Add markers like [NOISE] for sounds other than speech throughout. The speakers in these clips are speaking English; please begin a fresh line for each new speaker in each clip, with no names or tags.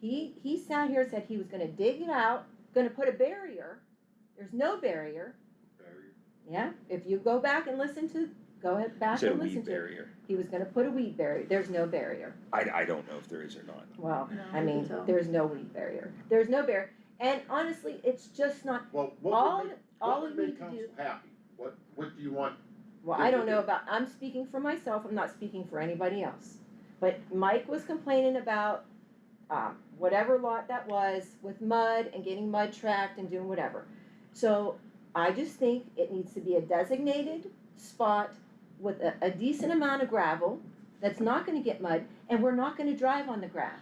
He, he sat here and said he was gonna dig it out, gonna put a barrier. There's no barrier,
Barrier.
yeah, if you go back and listen to, go ahead,
Is
back
that a
and
weed
listen to. it.
barrier?
He was gonna put a weed barrier, there's no barrier.
I, I don't know if there is or not.
Well,
No,
I
I
mean,
can tell.
there's no weed barrier. There's no barrier. And honestly, it's just not,
Well, what
all,
would make,
all
what
we
would
need
make
to
council
do,
happy? What, what do you want?
well, I don't know about, I'm speaking for myself, I'm not speaking for anybody else. But Mike was complaining about, um, whatever lot that was with mud and getting mud tracked and doing whatever. So I just think it needs to be a designated spot with a, a decent amount of gravel that's not gonna get mud and we're not gonna drive on the grass.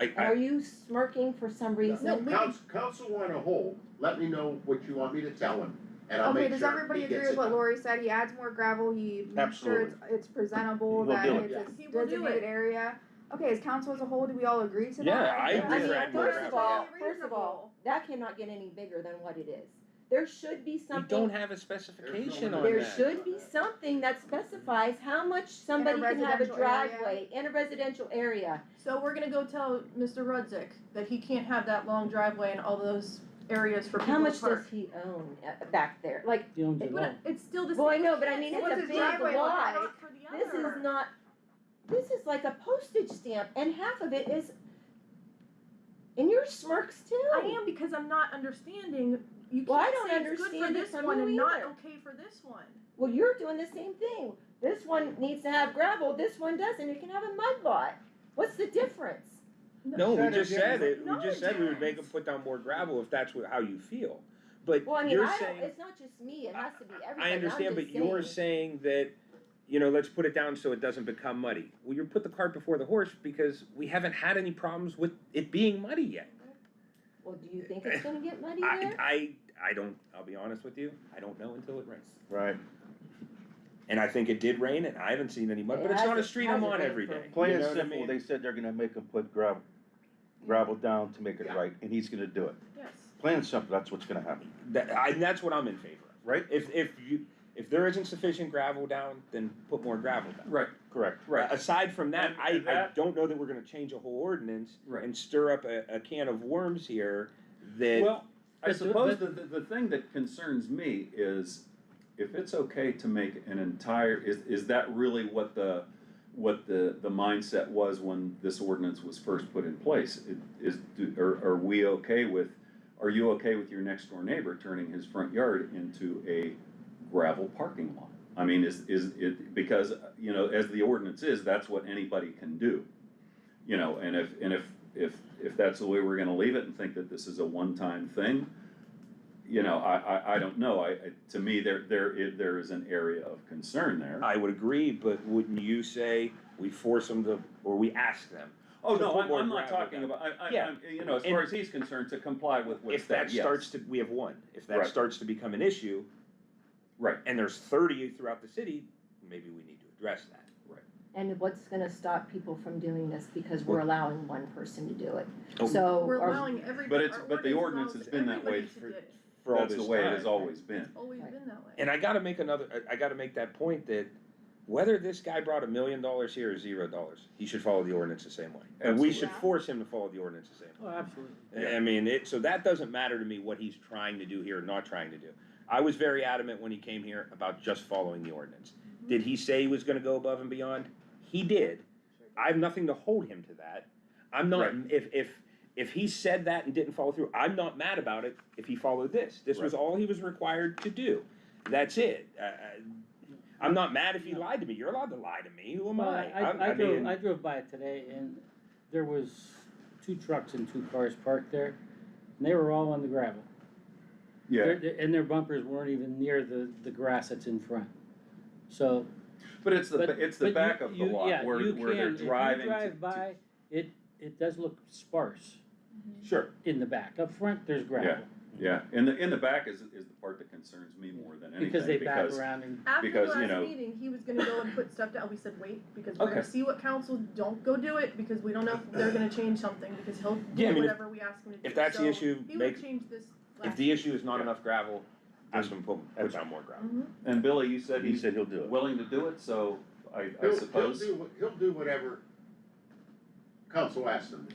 I,
And
I,
Are you smirking for some reason?
No, we-
Council, council on a whole, let me know what you want me to tell him, and I'll
Okay,
make
does
sure he
everybody
gets it.
agree with what Lori said? He adds more gravel, he makes sure it's, it's presentable,
He'll
that
do
it.
it's
He
a
will do
designated area. Okay, as council as a whole, do we all agree to that?
Yeah, I
think
agree
that's
with that.
First of all,
perfectly
first of all, that cannot get any bigger than what it is. There should be
we
something.
don't have a specification on that.
There should be something that specifies how much somebody can have a
residential area.
driveway in a reasonable area.
So we're gonna go tell Mr. Rudzik that he can't have that long driveway and all those areas for people
How
to
much does
park.
he own uh, back there? Like,
He owns it
But
all.
it's still the same.
Well, I know, but I mean,
shit.
it's
What's
a
his
big
driveway look
lot.
like?
this is not, this is like a postage stamp and half of it is, and your smirks too.
I am because I'm not understanding. You
Well, I
can't
don't
say it's good for
understand it
this
from
one
you
and not
either.
okay for this one.
Well, you're doing the same thing. This one needs to have gravel, this one doesn't. It can have a mud lot. What's the difference?
No, we just said it, we
No,
just said we would make them
it's-
put down more gravel if that's what, how you feel. But
Well, I mean,
you're
I don't,
saying,
it's not just me, it has to be everybody.
I
I'm
understand,
just
but you're
saying-
saying that, you know, let's put it down so it doesn't become muddy. Well, you put the cart before the horse because we haven't had any problems with it being muddy yet.
Well, do you think it's gonna get muddy
[LAUGHS] I,
there?
I, I don't, I'll be honest with you, I don't know until it rains.
Right.
And I think it did rain and I haven't seen any mud, but it's not a
Hasn't-
street I'm
hasn't
on
rained
every
for-
day.
Plain
You
and
know what I
simple,
mean?
they said they're gonna make him put gravel, gravel down to make it
Yeah.
right, and he's gonna do it.
Yes.
Plain and simple, that's what's gonna happen,
That, I, that's what I'm in favor of.
right?
If, if you, if there isn't sufficient gravel down, then put more gravel down.
Right,
Correct.
right,
Aside from that,
And-
I,
and
I
that-
don't know that we're gonna change a whole ordinance
right.
and stir up a, a can of worms here that,
Well, I
It's a-
suppose the, the, the thing that concerns me is if it's okay to make an entire, is, is that really what the, what the, the mindset was when this ordinance was first put in place? It- Is, do- are, are we okay with, are you okay with your next door neighbor turning his front yard into a gravel parking lot? I mean, is, is it, because, you know, as the ordinance is, that's what anybody can do. You know, and if, and if, if, if that's the way we're gonna leave it and think that this is a one-time thing, you know, I, I, I don't know, I, I, to me, there, there is, there is an area of concern there.
I would agree, but wouldn't you say we force them to, or we ask them?
Oh,
to
no,
put
I'm,
more
I'm not
gravel
talking
down.
about, I, I,
Yeah.
I'm, you know, as
And-
far as he's concerned, to comply with what's
If that
yes.
starts to, we have one, if that
Right.
starts to become an issue.
Right.
And there's thirty throughout the city, maybe we need to address that.
And what's gonna stop people from doing this because we're allowing one person to do it?
Oh.
So,
We're
are-
allowing every.
But it's-
our
but the
ordinance
ordinance
allows
has been that way
everybody to
for-
get it.
For all
That's the
this
way it
time,
has
right?
always been.
It's always been that way.
And I gotta make another, I I gotta make that point that whether this guy brought a million dollars here or zero dollars, he should follow the ordinance the same way. And we should
Absolutely.
force him to follow the ordinance the same way.
Oh, absolutely.
I mean, it, so that doesn't matter to me what he's trying to do here, or not trying to do. I was very adamant when he came here about just following the ordinance. Did he say he was gonna go above and beyond? He did. I have nothing to hold him to that. I'm not, if, if, if he said that and didn't follow through, I'm not mad about it if he followed this. This was all he was required to do. That's it. Uh, uh, I'm not mad if he
No.
lied to me. You're allowed to lie to me. Who am
Well,
I? I'm-
I, I drove,
mean,
I drove by it today and there was two trucks and two cars parked there, and they were all on the gravel.
Yeah,
Their- their- And their bumpers weren't even near the, the grass that's in front. So,
but it's the,
but.
ba- it's the
but you-
back of the
you-
lot
yeah,
where,
you
where they're
can- if you
driving to.
drive
to-
by, it, it does look sparse
Sure.
in the back. Up front, there's gravel.
Yeah, and the, in the back is, is the part that concerns me more than anything,
Because they back
because,
around and,
After
Because,
the
you
last
know-
meeting, he was gonna go and put stuff down, we said, wait, because we're gonna
Okay.
see what council, don't go do it, because we don't know if they're gonna change something, because he'll
Yeah, I
do
mean, if-
whatever we ask him to do,
if that's the
So
issue,
He
make-
would change this last.
If the issue is not
Yeah.
enough gravel, ask him to put, put
That's-
down more gravel.
Mhm.
and Billy, you said
he
he's
said he'll do it.
willing to do it, so I,
He'll-
I suppose.
He'll do, what- he'll do whatever council asks him to do.